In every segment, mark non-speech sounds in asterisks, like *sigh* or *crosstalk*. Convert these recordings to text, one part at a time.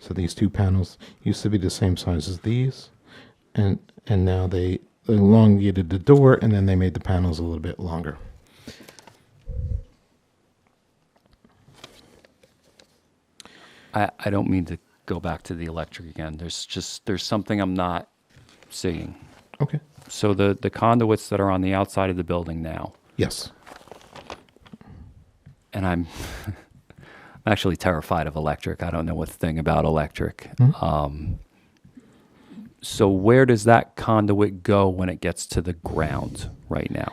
So these two panels used to be the same size as these, and and now they elongated the door, and then they made the panels a little bit longer. I, I don't mean to go back to the electric again. There's just, there's something I'm not seeing. Okay. So the, the conduits that are on the outside of the building now, Yes. and I'm *laughs* I'm actually terrified of electric. I don't know a thing about electric. Hmm? Um, so where does that conduit go when it gets to the ground right now?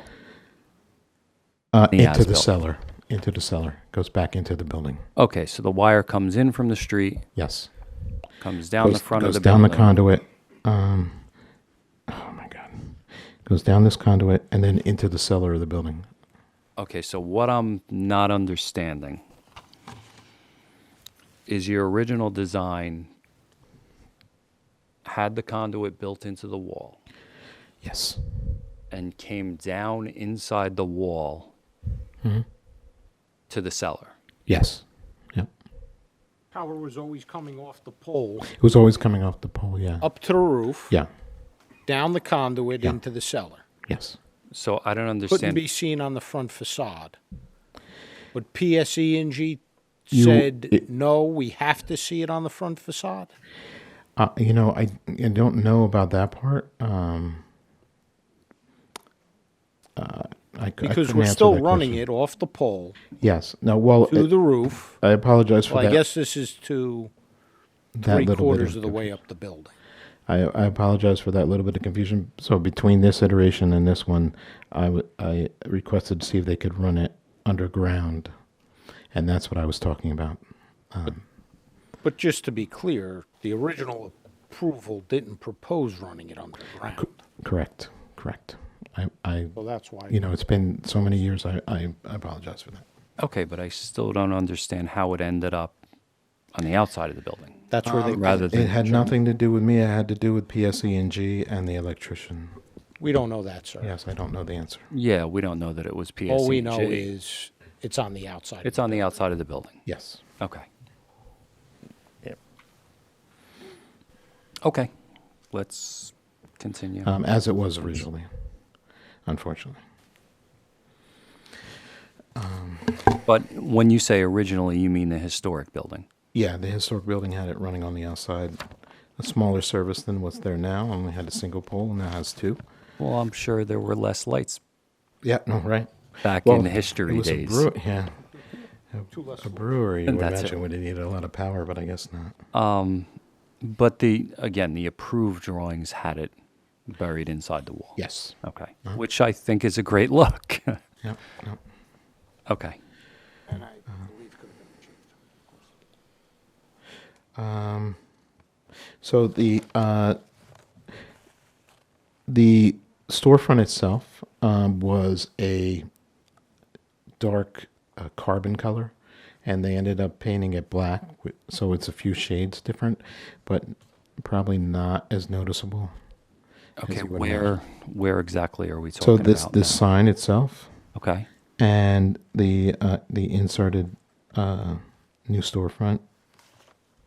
Uh, The into the as-built. cellar. Into the cellar. Goes back into the building. Okay, so the wire comes in from the street, Yes. comes down goes, the front goes of the down building. the conduit. Um, oh my god, goes down this conduit and then into the cellar of the building. Okay, so what I'm not understanding is your original design had the conduit built into the wall Yes, and came down inside the wall Mm-hmm. to the cellar. yes, yep. Power was always coming off the pole, It was always coming off the pole. Oh. Yeah, up to the roof, yeah, down the conduit, Yeah. into the cellar. yes. So I don't Couldn't understand. be seen on the front facade. But PSENG You- said, it- no, we have to see it on the front facade. Uh, you know, I, I don't know about that part. Um, uh, I, cou- I Because couldn't we're answer still that running question. it off the pole Yes. No. Well, to it- the roof. I apologize for Well, I that. guess this is to that three little bit quarters of the confusion. way up the building. I, I apologize for that little bit of confusion. So between this iteration and this one, I, w- I requested to see if they could run it underground, and that's what I was talking about. But just to be clear, the original approval didn't propose running it underground. Correct, correct. I, I Well, that's why. you know, it's been so many years. I, I, I apologize for that. okay, but I still don't understand how it ended up on the outside of the building. That's where they, Rather It than had nothing to do with me. It had to do with PSENG and the electrician. we don't know that, sir. Yes, I don't know the answer. yeah, we don't know that it was PSEG. All we know is it's on the outside. it's on the outside of the building. Yes. Okay. Okay, let's continue. um, as it was originally, unfortunately. But when you say originally, you mean the historic building. Yeah, the historic building had it running on the outside. A smaller service than what's there now, only had a single pole, and now has two. Well, I'm sure there were less lights Yeah, no, right. back in the history it was days. A brew- yeah. A, a brewery, you would That's it. imagine, would need a lot of power, but I guess not. but the again, the approved drawings had it buried inside the wall. Yes. Okay. Uh-huh. Which I think is a great *laughs* look. Yep. yep. okay. So the uh, the storefront itself um, was a dark uh, carbon color, and they ended up painting it black, wi- so it's a few shades different, but probably not as noticeable. Okay. you would Where where exactly are we So talking this about? this sign itself okay. and the uh, the inserted uh, new storefront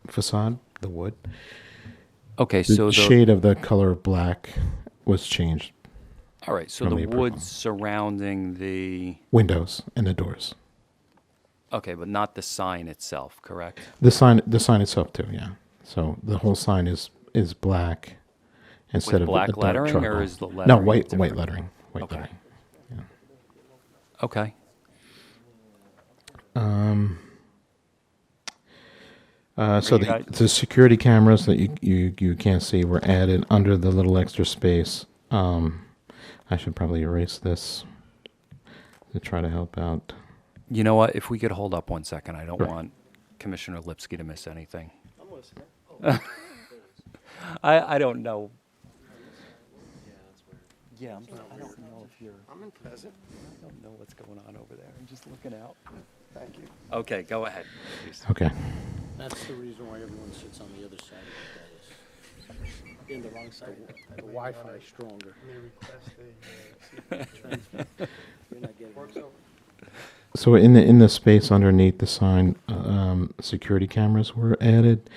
facade, the wood, Okay. the So the, shade of the color black was changed. all right. So from the the wood approval. surrounding the Windows and the doors. okay, but not the sign itself, correct? The sign, the sign itself too. Yeah. So the whole sign is is black instead of black a dark lettering, or charcoal. is the no white lettering white different? lettering white Okay. lettering. Okay. Uh, so you the, guys- the security cameras that you, you you can't see were added under the little extra space. Um, I should probably erase this to try to help out. You know what? If we could hold up one second, I don't want Commissioner Lipsky to miss anything. *laughs* I, I don't know. Yeah, I'm, I don't know if you're. I'm in present. I don't know what's going on over there. I'm just looking out. Thank you. Okay, go ahead. please. Okay. That's the reason why everyone sits on the other side of the dais. In the wrong side. The Wi-Fi is stronger. So in the in the space underneath the sign, uh, um, security cameras were added.